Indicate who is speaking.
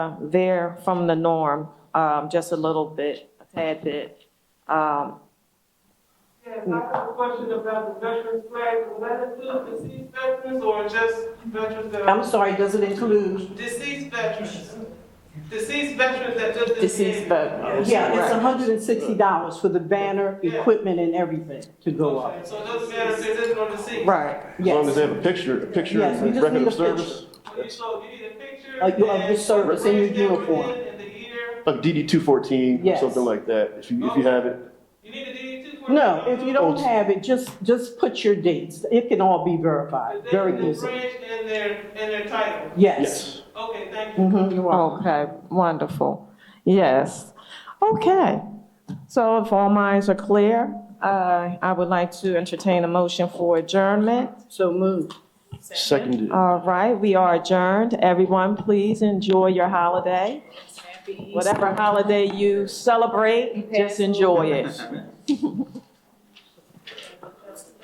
Speaker 1: there from the norm, um, just a little bit, a tad bit. Um,
Speaker 2: Yes, I have a question about the veterans flag. Will that include deceased veterans or just veterans that
Speaker 3: I'm
Speaker 2: are
Speaker 3: sorry, does it include
Speaker 2: deceased veterans? Deceased veterans that just.
Speaker 4: Deceased veterans.
Speaker 3: Yeah, it's
Speaker 4: Right.
Speaker 3: hundred and sixty dollars for the banner, equipment, and everything to go up.
Speaker 2: Okay, So it doesn't matter if they're just on the scene.
Speaker 1: Right.
Speaker 3: Yes.
Speaker 5: As long as they have a picture, a picture
Speaker 3: Yes, we
Speaker 5: of
Speaker 3: just
Speaker 5: record
Speaker 3: need a
Speaker 5: of service
Speaker 2: So you- So you need a picture.
Speaker 3: Of your- of
Speaker 2: and
Speaker 3: your service and your
Speaker 2: the branch that we're
Speaker 3: uniform.
Speaker 2: in And the year.
Speaker 5: of DD two fourteen or
Speaker 3: Yes.
Speaker 5: something like that, if you, if you have it.
Speaker 2: You need a DD two. for
Speaker 3: No,
Speaker 2: that?
Speaker 3: if you don't have it, just, just put your dates. It can all be verified,
Speaker 2: But they
Speaker 3: very
Speaker 2: need the
Speaker 3: easily.
Speaker 2: Branch and their, and their title.
Speaker 3: Yes.
Speaker 2: Okay, thank you.
Speaker 3: Mhm, you're welcome.
Speaker 1: Okay, wonderful. Yes. Okay. So if all minds are clear, uh, I would like to entertain a motion for adjournment.
Speaker 3: So moved.
Speaker 5: Seconded.
Speaker 1: All right, we are adjourned. Everyone, please enjoy your holiday. Whatever holiday you celebrate, just enjoy it.